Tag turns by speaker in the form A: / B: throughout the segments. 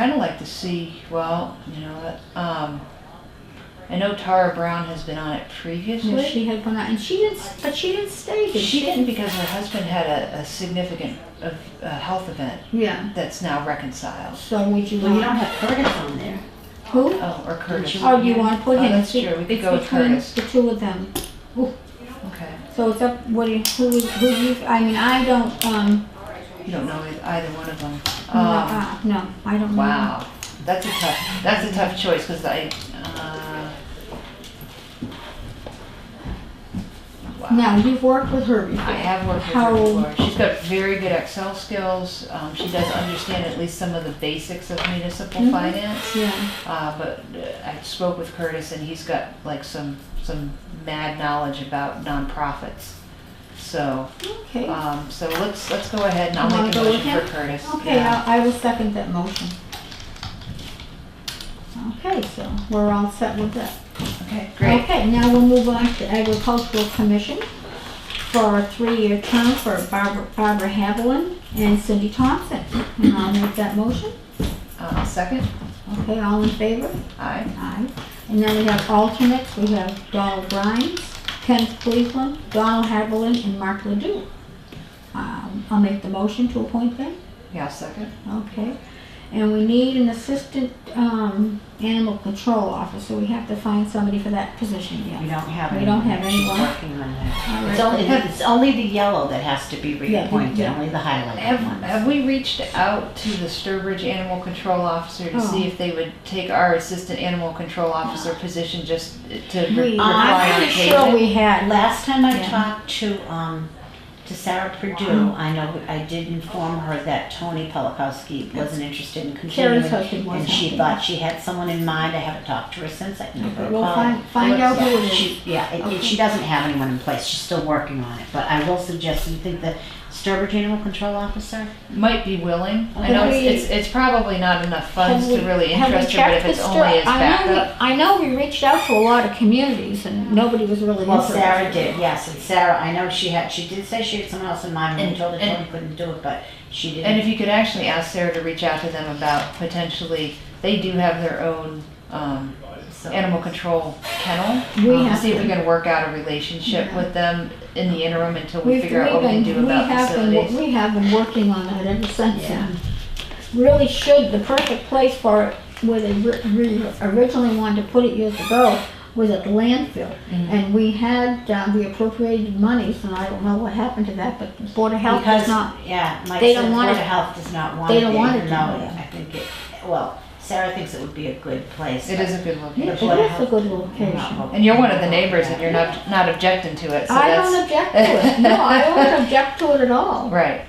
A: Kind of like to see, well, you know, that, um, I know Tara Brown has been on it previously.
B: Yeah, she had one out, and she didn't, but she didn't stay. Did
A: She didn't because her husband had a, a significant of, uh health event
B: Yeah.
A: that's now reconciled.
B: So would you
C: Well, you
B: want
C: don't have Curtis on there.
B: who?
A: Oh, or Curtis.
B: Oh, do you want to put
A: Oh,
B: him?
A: that's
B: It's-
A: true. We could
B: it's
A: go with
B: between
A: Curtis.
B: The two of them.
A: Okay.
B: So it's up. What do you? Who? would- Who? do You, I mean, I don't. Um.
A: You don't know eith- either one of them.
B: no,
A: Um,
B: uh, no, I don't. know.
A: wow, that's a tough. That's a tough choice because I. Uh, wow.
B: Now you've worked with her before.
A: I have worked with
B: How-
A: her before. She's got very good Excel skills. Um, she does understand at least some of the basics of municipal
B: Mhm.
A: finance.
B: Yeah.
A: Uh, but uh, I spoke with Curtis, and he's got like some some mad knowledge about nonprofits. So,
B: Okay.
A: um, so let's let's go ahead and I'll
B: You wanna
A: make a
B: go with
A: motion for
B: him?
A: Curtis.
B: Okay,
A: Yeah.
B: I I will second that motion. Okay, so we're all set with that.
A: Okay. Great.
B: Okay, now we'll move on to Agricultural Commission for a three-year term for Barbara Barbara Haviland and Cindy Thompson. And I'll make that motion.
A: Uh, second.
B: Okay, all in favor?
A: Aye.
B: Aye. And then we have alternates. We have Donald Grimes, Kenneth Cleveland, Donald Haviland, and Mark Ledoux. Um, I'll make the motion to appoint them.
A: Yeah. Second.
B: Okay, and we need an assistant, um, animal control officer, we have to find somebody for that position
C: We
B: yet.
C: don't have
B: We
C: anyone.
B: don't have
C: She's
B: anyone.
C: working on that.
B: All
C: It's
B: right.
C: only, it's only the yellow that has to be
B: yeah.
C: reappointed, only the
A: Have,
C: highlighted ones.
A: have we reached out to the Sturbridge Animal Control Officer to see
B: Oh.
A: if they would take our assistant animal control officer position just to re-
B: We-
A: require
C: I'm
A: on
C: pretty
B: Sure
A: occasion?
B: we had,
C: Last time I
B: Yeah.
C: talked to, um, to Sarah Perdue, I know, I did inform her that Tony Polakowski wasn't interested in
B: Sarah's
C: continuing.
B: husband was.
C: And she thought she had someone in mind, I haven't talked to her since, I can give her a call.
B: We'll find, find out who
C: Yeah,
B: it is.
C: she, yeah, and- and she doesn't have anyone in place, she's still working on it, but I will suggest, you think the Sturbridge Animal Control Officer?
A: Might be willing. I
C: Have
A: know
B: we-
A: it's, it's it's probably not enough funds
B: Have
A: to
B: we-
A: really
B: have we
A: interest her, but if
B: checked
A: it's
B: the
A: only
B: stir-
A: as
B: I know we-
A: backup.
B: I know we reached out to a lot of communities and nobody was really
C: Well,
B: interested.
C: Sarah did, yes, and Sarah, I know she had, she did say she had someone else in mind, and we told her
A: And-
C: Tony couldn't do it, but she
A: And
C: didn't.
A: if you could actually ask Sarah to reach out to them about potentially, they do have their own um,
C: so-
A: animal control kennel. um,
B: We
A: To
B: have
A: see if we
B: to.
A: can work out a relationship with them in the interim until we
B: We've,
A: figure out
B: we've
A: what we
B: been,
A: do
B: we
A: about
B: have been,
A: facilities.
B: wo- we have been working on that ever since
C: Yeah.
B: then. Really should, the perfect place for it, where they ri- ri- originally wanted to put it years ago, was at the landfill.
A: Mhm.
B: And we had, uh, we appropriated monies, and I don't know what happened to that, but the Board of Health
C: Because,
B: does not.
C: yeah, Mike
B: they
C: said
B: don't
C: Board
B: want
C: of
B: it-
C: Health does not want it.
B: they don't want it to
C: No,
B: be there.
C: I think it, well, Sarah thinks it would be a good place.
A: It
C: but-
A: is a good
B: It
A: location.
B: is
C: Board of
B: a
C: Health-
B: good
C: I'm
B: location.
C: not voting.
A: And you're one of the neighbors and you're not, not objecting to it, so
B: I don't
A: that's,
B: object to it, no, I don't object to it at all.
A: right.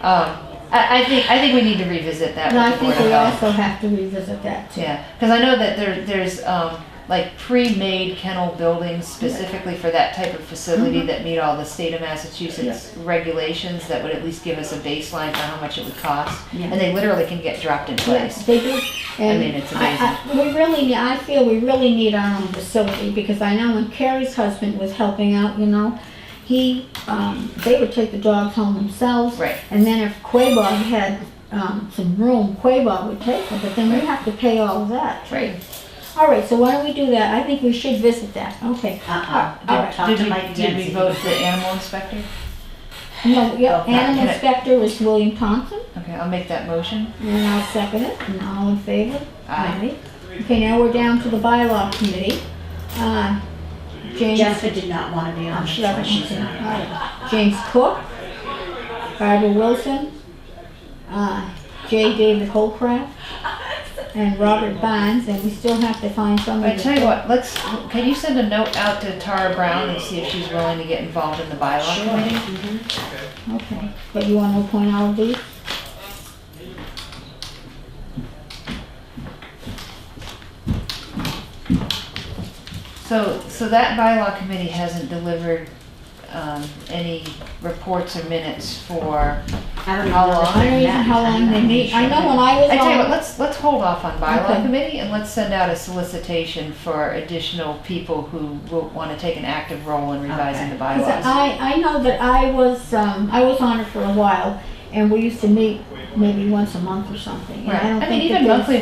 A: Um, I, I think, I think we need to revisit that
B: And I
A: with the Board
B: think
A: of
B: we
A: Health.
B: also have to revisit that too.
A: Yeah, because I know that there, there's, um, like pre-made kennel buildings specifically for that type of
B: Mm-hmm.
A: facility that meet all the state of Massachusetts regulations that would at least give us a baseline for how much it would cost.
B: Yeah.
A: And they literally can get dropped in
B: Yes,
A: place.
B: they do. And
A: mean, it's
B: I- I- We really, need- I feel we really need our own facility, because I know when Carrie's husband was helping out, you know, he, um, they would take the dogs home themselves.
A: Right.
B: And then if Quabog had, um, some room, Quabog would take them, but then we have to pay all of that.
A: Right.
B: All right, so why don't we do that? I think we should visit that, okay.
C: Uh-uh,
B: All
C: don't
B: right.
C: talk
A: Uh, Did
C: to
A: we,
C: Mike again.
A: did
C: see
A: we
C: if
A: vote
C: he-
A: the animal inspector?
B: No, yeah,
C: Okay.
B: animal inspector is William Thompson,
A: Okay, I'll make that motion.
B: and I'll second it, and all in favor?
A: Aye.
B: Okay, now we're down to the bylaw committee. Uh, James,
C: Jennifer did not want to be on,
B: oh,
C: that's
B: she doesn't
C: why
B: want
C: she's
B: to. All
C: not.
B: right. James Cook, Barbara Wilson, uh, J. David Holcraft, and Robert Bonds, and we still have to find
A: I
B: somebody.
A: tell you what, let's, can you send a note out to Tara Brown and see if she's willing to get involved in the bylaw
C: Sure.
A: committee?
B: Okay, but you want to appoint all of these?
A: So, so that bylaw committee hasn't delivered um, any reports or minutes for,
C: I don't know.
A: How long?
C: if
B: I don't
C: they
B: even know
C: met.
B: how
C: I'm
B: long
C: not
B: they meet. I
C: sure.
B: know when I was
A: I tell you what,
B: on,
A: let's, let's hold off on bylaw
B: Okay.
A: committee and let's send out a solicitation for additional people who will want to take an active role in revising the
C: Okay.
A: bylaws.
B: because I, I know that I was, um, I was on it for a while, and we used to meet maybe once a month or something. and I
A: Right.
B: don't
A: I mean,
B: think that
A: even
B: there's-
A: monthly